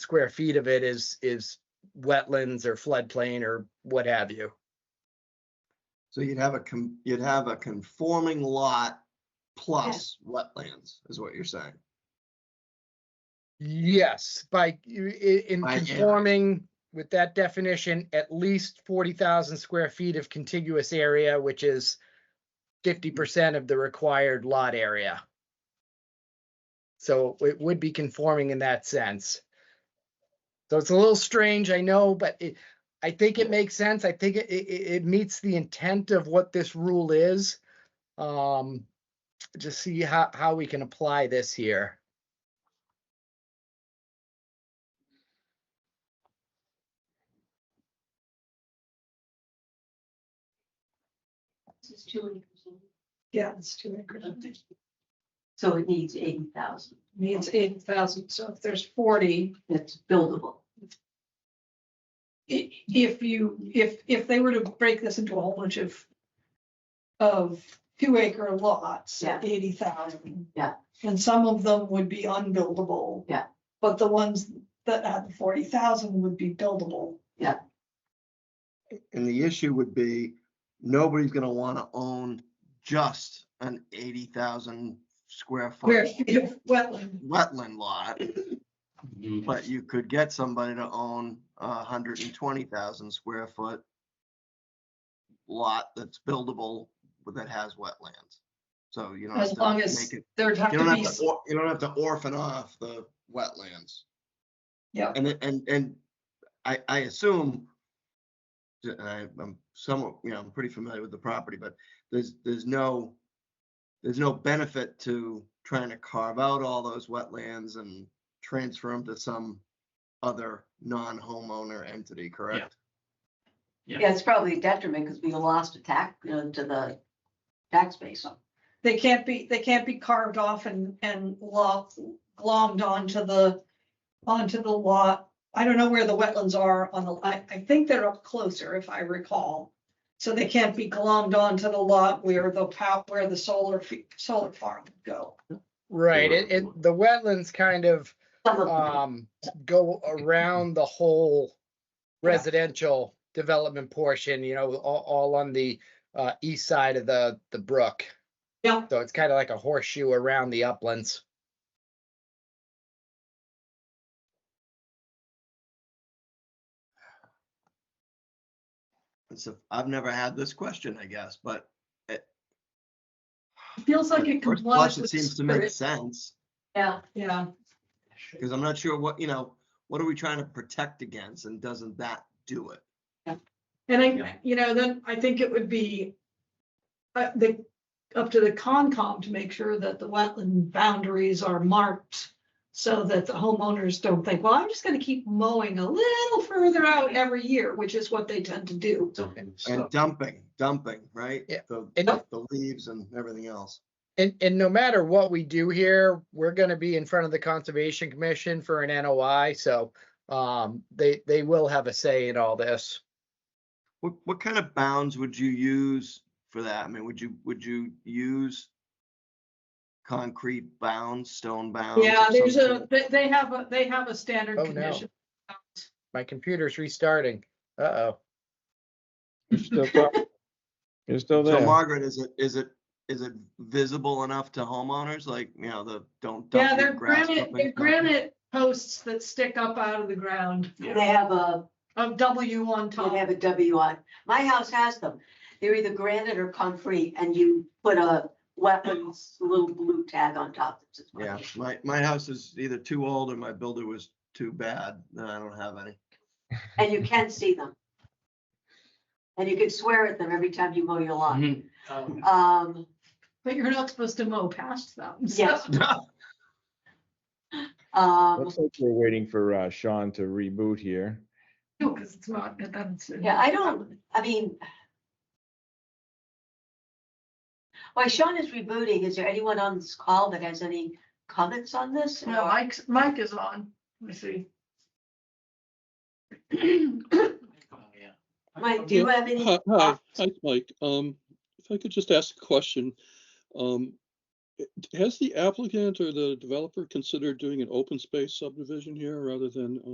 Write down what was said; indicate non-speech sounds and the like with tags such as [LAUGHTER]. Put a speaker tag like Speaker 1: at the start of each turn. Speaker 1: square feet of it is, is wetlands or floodplain or what have you.
Speaker 2: So you'd have a, com- you'd have a conforming lot plus wetlands is what you're saying.
Speaker 1: Yes, by, i- in
Speaker 2: By area.
Speaker 1: conforming with that definition, at least forty thousand square feet of contiguous area, which is fifty percent of the required lot area. So it would be conforming in that sense. So it's a little strange, I know, but it, I think it makes sense. I think it, it, it it meets the intent of what this rule is. Um, just see how, how we can apply this here.
Speaker 3: This is two acres.
Speaker 4: Yeah, it's two acres.
Speaker 3: So it needs eighty thousand.
Speaker 4: Means eighty thousand, so if there's forty,
Speaker 3: That's buildable.
Speaker 4: i- if you, if, if they were to break this into a whole bunch of. Of two acre lots,
Speaker 3: Yeah.
Speaker 4: eighty thousand.
Speaker 3: Yeah.
Speaker 4: And some of them would be unbuildable.
Speaker 3: Yeah.
Speaker 4: But the ones that had forty thousand would be buildable.
Speaker 2: And the issue would be, nobody's gonna wanna own just an eighty thousand square
Speaker 4: Where,
Speaker 2: foot
Speaker 4: if, wetland,
Speaker 2: wetland lot. But you could get somebody to own a hundred and twenty thousand square foot lot that's buildable, but that has wetlands. So you don't have
Speaker 4: as
Speaker 2: to
Speaker 4: long
Speaker 2: make
Speaker 4: as
Speaker 2: it,
Speaker 4: there'd have
Speaker 2: you
Speaker 4: to
Speaker 2: don't
Speaker 4: be,
Speaker 2: have to, or- you don't have to orphan off the wetlands.
Speaker 4: yeah,
Speaker 2: And, it- and, and I, I assume, and I, I'm somewhat, you know, I'm pretty familiar with the property, but there's, there's no, there's no benefit to trying to carve out all those wetlands and transfer them to some other non-homeowner entity, correct?
Speaker 3: Yeah, it's probably a detriment because we lost a tax, you know, to the tax base.
Speaker 4: they can't be, they can't be carved off and, and locked, glommed onto the, onto the lot. I don't know where the wetlands are on the, I, I think they're up closer if I recall. So they can't be glommed onto the lot where the pow, where the solar, fe- solar farm would go.
Speaker 1: Right,
Speaker 2: or-
Speaker 1: it, it, the wetlands kind of,
Speaker 3: Some of them,
Speaker 1: um, go around the whole
Speaker 4: Yeah.
Speaker 1: residential development portion, you know, all, all on the, uh, east side of the, the brook.
Speaker 4: Yeah.
Speaker 1: So it's kind of like a horseshoe around the uplands.
Speaker 2: It's a, I've never had this question, I guess, but
Speaker 4: Feels like
Speaker 2: at
Speaker 4: it
Speaker 2: first
Speaker 4: complies
Speaker 2: blush, it
Speaker 4: with
Speaker 2: seems to make
Speaker 4: spirit.
Speaker 2: sense.
Speaker 3: yeah.
Speaker 4: Yeah,
Speaker 2: Because I'm not sure what, you know, what are we trying to protect against and doesn't that do it?
Speaker 4: and
Speaker 2: Yeah.
Speaker 4: I, you know, then I think it would be uh, the, up to the Concom to make sure that the wetland boundaries are marked so that the homeowners don't think, well, I'm just gonna keep mowing a little further out every year, which is what they tend to do.
Speaker 2: And dumping, dumping, right?
Speaker 1: Yeah.
Speaker 2: The,
Speaker 1: And-
Speaker 2: the the leaves and everything else.
Speaker 1: And, and no matter what we do here, we're gonna be in front of the Conservation Commission for an NOI, so, um, they, they will have a say in all this.
Speaker 2: What, what kind of bounds would you use for that? I mean, would you, would you use concrete bounds, stone bounds?
Speaker 4: Yeah,
Speaker 2: of
Speaker 4: there's
Speaker 2: some
Speaker 4: a,
Speaker 2: sort?
Speaker 4: they, they have a, they have a standard
Speaker 1: Oh, no.
Speaker 4: condition.
Speaker 1: My computer's restarting. Uh-oh.
Speaker 5: You're still talking. You're still
Speaker 2: So
Speaker 5: there.
Speaker 2: Margaret, is it, is it, is it visible enough to homeowners? Like, you know, the, don't
Speaker 4: Yeah,
Speaker 2: dump
Speaker 4: they're
Speaker 2: your grass.
Speaker 4: granite,
Speaker 2: clippings
Speaker 4: they're
Speaker 2: down.
Speaker 4: granite posts that stick up out of the ground
Speaker 3: They have a,
Speaker 4: of W on top.
Speaker 3: they have a W on. My house has them. They're either granite or concrete and you put a weapons, little blue tag on top. that says
Speaker 2: Yeah,
Speaker 3: weapons.
Speaker 2: my, my house is either too old or my builder was too bad. and I don't have any. [LAUGHS]
Speaker 3: And you can see them. And you can swear at them every time you mow your lawn. Um,
Speaker 4: But you're not supposed to mow past them. so- [LAUGHS]
Speaker 3: Yes. um,
Speaker 5: Looks like we're waiting for uh, Sean to reboot here.
Speaker 4: No, because it's not, that doesn't-
Speaker 3: Yeah, I don't- I mean. While Sean is rebooting, is there anyone on this call that has any comments on this?
Speaker 4: No, Mike's, Mike is on, let me see. [CLEARS THROAT]
Speaker 3: Mike, do you have any?
Speaker 6: Hi, hi, hi, Mike. Um, if I could just ask a question. Um, has the applicant or the developer considered doing an open space subdivision here rather than